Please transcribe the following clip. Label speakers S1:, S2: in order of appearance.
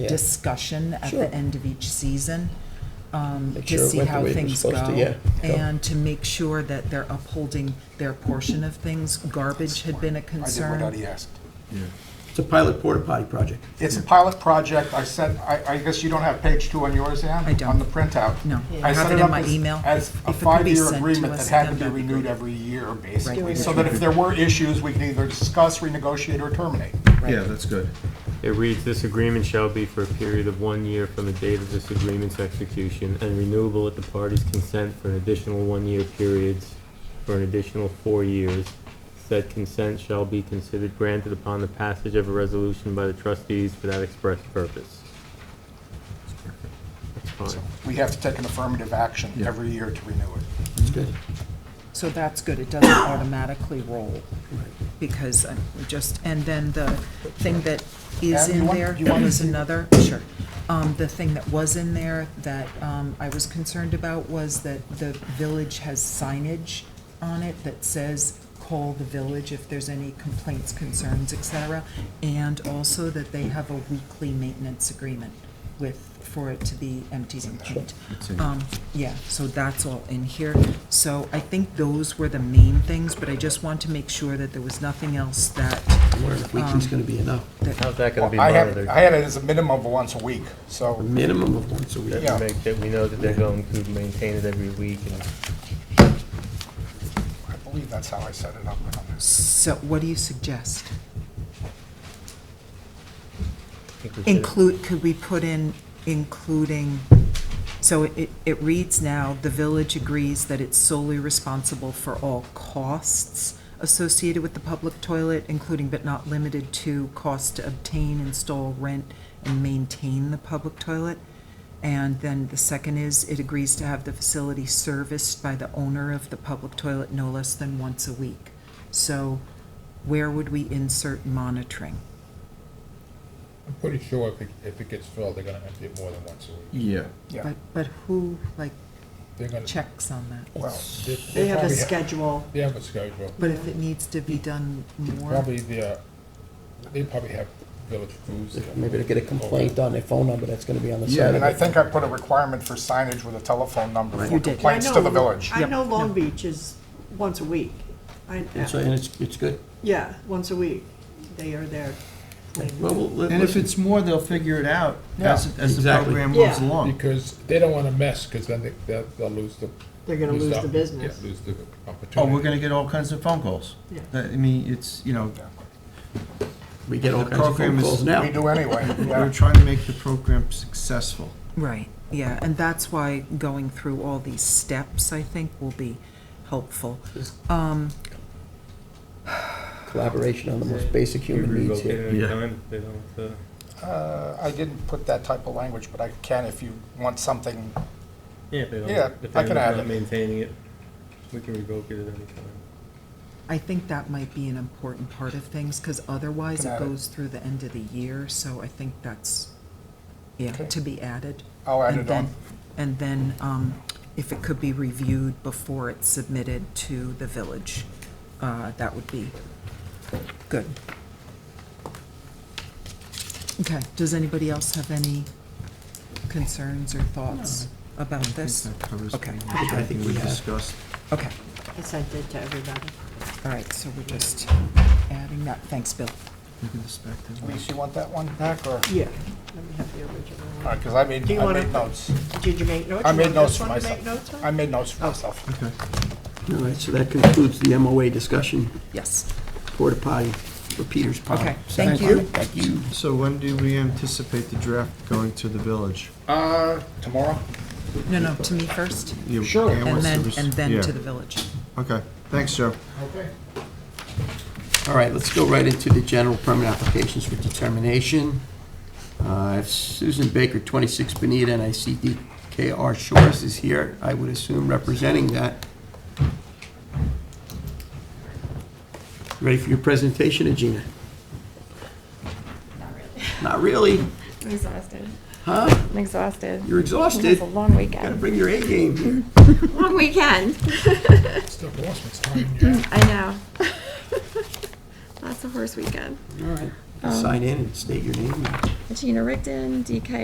S1: Yeah.
S2: discussion at
S1: Sure.
S2: the end of each season, um,
S1: Make
S2: to
S1: sure it
S2: see
S1: went the
S2: how
S1: way it was
S2: things
S1: supposed to,
S2: go.
S1: yeah, go.
S2: And to make sure that they're upholding their portion of things. Garbage had been a
S3: I did what
S2: concern.
S3: Dottie asked.
S1: It's a pilot porta potty project.
S3: It's a pilot project, I sent, I, I guess you don't have page two on yours, Ann?
S2: I don't.
S3: On the printout?
S2: No.
S3: I
S2: I have
S3: set
S2: it in
S3: up
S2: my
S3: as-
S2: email.
S3: As
S2: If- if
S3: a
S2: it could be
S3: five-year
S2: sent to
S3: agreement
S2: us,
S3: that had
S2: then
S3: to be
S2: that'd be
S3: renewed
S2: great.
S3: every year, basically,
S2: Right.
S3: so that if there were issues, we could either discuss, renegotiate, or terminate.
S4: Yeah, that's good.
S5: It reads, "This agreement shall be for a period of one year from the date of this agreement's execution and renewable at the parties' consent for an additional one-year periods for an additional four years. Said consent shall be considered granted upon the passage of a resolution by the trustees for that express purpose." That's fine.
S3: We have to take an affirmative action
S4: Yeah.
S3: every year to renew it.
S1: It's good.
S2: So that's good. It doesn't automatically roll because I'm just, and then the thing that is
S3: Adam, you
S2: in
S3: want-
S2: there
S3: you want to
S2: was
S3: see-
S2: another, sure. Um, The thing that was in there that um, I was concerned about was that the village has signage on it that says, call the village if there's any complaints, concerns, et cetera. And also that they have a weekly maintenance agreement with, for it to be empties and cleaned. Um, Yeah, so that's all in here. So I think those were the main things, but I just want to make sure that there was nothing else that,
S1: I'm wondering if
S2: Oh.
S1: weekly's gonna be enough.
S5: How's that gonna be
S3: I had,
S5: monitored?
S3: I had it as a minimum of once a week,
S1: A
S3: so
S1: minimum of once a week.
S3: Yeah.
S5: Make that we know that they're going to maintain it every week and
S3: I believe that's how I set it up.
S2: so what do you suggest?
S5: I think we should-
S2: Include, could we put in including, so it, it reads now, the village agrees that it's solely responsible for all costs associated with the public toilet, including but not limited to cost to obtain, install, rent, and maintain the public toilet. And then the second is, it agrees to have the facility serviced by the owner of the public toilet no less than once a week. So where would we insert monitoring?
S6: I'm pretty sure if it, if it gets filled, they're gonna empty it more than once a week.
S4: Yeah.
S3: Yeah.
S2: But, but who, like,
S6: They're gonna.
S2: checks on that.
S3: Well,
S6: they-
S7: They have a
S6: probably
S7: schedule.
S6: They have a schedule.
S2: But if it needs to be done more,
S6: Probably the, uh, they probably have village foods.
S1: Maybe they'll get a complaint on their phone number that's gonna be on the
S4: Yeah.
S1: side
S3: And
S1: of
S3: I
S1: it.
S3: think I put a requirement for signage with a telephone number
S2: You
S3: for
S2: did.
S3: complaints
S7: I
S3: to the
S7: know-
S3: village.
S7: I
S2: Yep.
S7: know Long Beach is once a week. I,
S1: And so, and it's, it's good.
S7: yeah, once a week, they are there.
S1: Well, we'll- let-
S8: And if
S1: let's-
S8: it's more, they'll figure it out as, as the
S1: exactly.
S8: program moves
S7: Yeah.
S8: along.
S6: Because they don't wanna mess, cause then they, they'll, they'll lose the.
S7: They're gonna lose the
S6: op-
S7: business.
S6: Yeah, lose the opportunity.
S8: Oh, we're gonna get all kinds of phone calls.
S7: Yeah.
S8: That- I mean, it's, you know,
S1: We get all
S8: the
S1: kinds of
S8: program
S1: phone
S8: is-
S1: calls
S3: We
S1: now.
S3: do anyway,
S8: we're
S3: yeah.
S8: trying to make the program successful.
S2: right, yeah, and that's why going through all these steps, I think, will be helpful. Um,
S1: Collaboration on the most basic human needs here.
S4: Yeah.
S5: They don't, uh,
S3: Uh, I didn't put that type of language, but I can if you want something
S5: Yeah, if they don't,
S3: Yeah,
S5: if
S3: I
S5: they're
S3: can add
S5: not
S3: it.
S5: maintaining it, we can revoke it at any time.
S2: I think that might be an important part of things, because otherwise
S3: Can
S2: it
S3: add it.
S2: goes through the end of the year, so I think that's, yeah,
S3: Okay.
S2: to be added.
S3: I'll add
S2: And
S3: it
S2: then-
S3: on.
S2: And then, um, if it could be reviewed before it's submitted to the village, uh, that would be good. Okay, does anybody else have any concerns or thoughts about
S8: I
S2: this?
S8: think that covers
S2: Okay.
S8: pretty much
S1: I think
S8: everything
S1: we
S8: we
S1: have-
S8: discussed.
S2: Okay,
S7: I sent it to everybody.
S2: all right, so we're just adding that, thanks, Bill.
S8: Look at this back there.
S3: Lisa, you want that one back, or?
S7: Yeah. Let me have the original. one.
S3: Because I made,
S7: Do you
S3: I
S7: wanna-
S3: made notes.
S7: Did you make notes?
S3: I
S7: You
S3: made
S7: want
S3: notes
S7: this
S3: for
S7: one to make notes
S3: myself.
S7: on?
S3: I made notes for myself.
S8: Okay.
S1: All right, so that concludes the MOA discussion,
S2: Yes,
S1: porta potty for Peter's Pond.
S2: okay,
S1: Second.
S2: thank you.
S1: Thank you.
S8: So when do we anticipate the draft going to the village?
S3: Uh, tomorrow?
S2: No, no, to me first,
S8: You-
S3: Sure.
S8: yeah,
S2: and
S8: what's the
S2: then,
S8: res-
S2: and then
S8: yeah.
S2: to the village.
S8: Okay, thanks, Joe.
S3: Okay.
S1: All right, let's go right into the general permit applications for determination. Uh, if Susan Baker, 26 Benita, and I see DKR Shores is here, I would assume representing that. Ready for your presentation, Agina? Not really?
S9: I'm exhausted.
S1: Huh?
S9: I'm exhausted.
S1: You're
S9: It was
S1: exhausted?
S9: a long
S1: Gotta
S9: weekend.
S1: bring your A game here.
S9: Long weekend.
S6: Still horseman's time, yeah.
S9: I know. That's a horse weekend.
S1: All right.
S9: Um,
S1: sign in and state your name.
S9: Gina Rickton, DK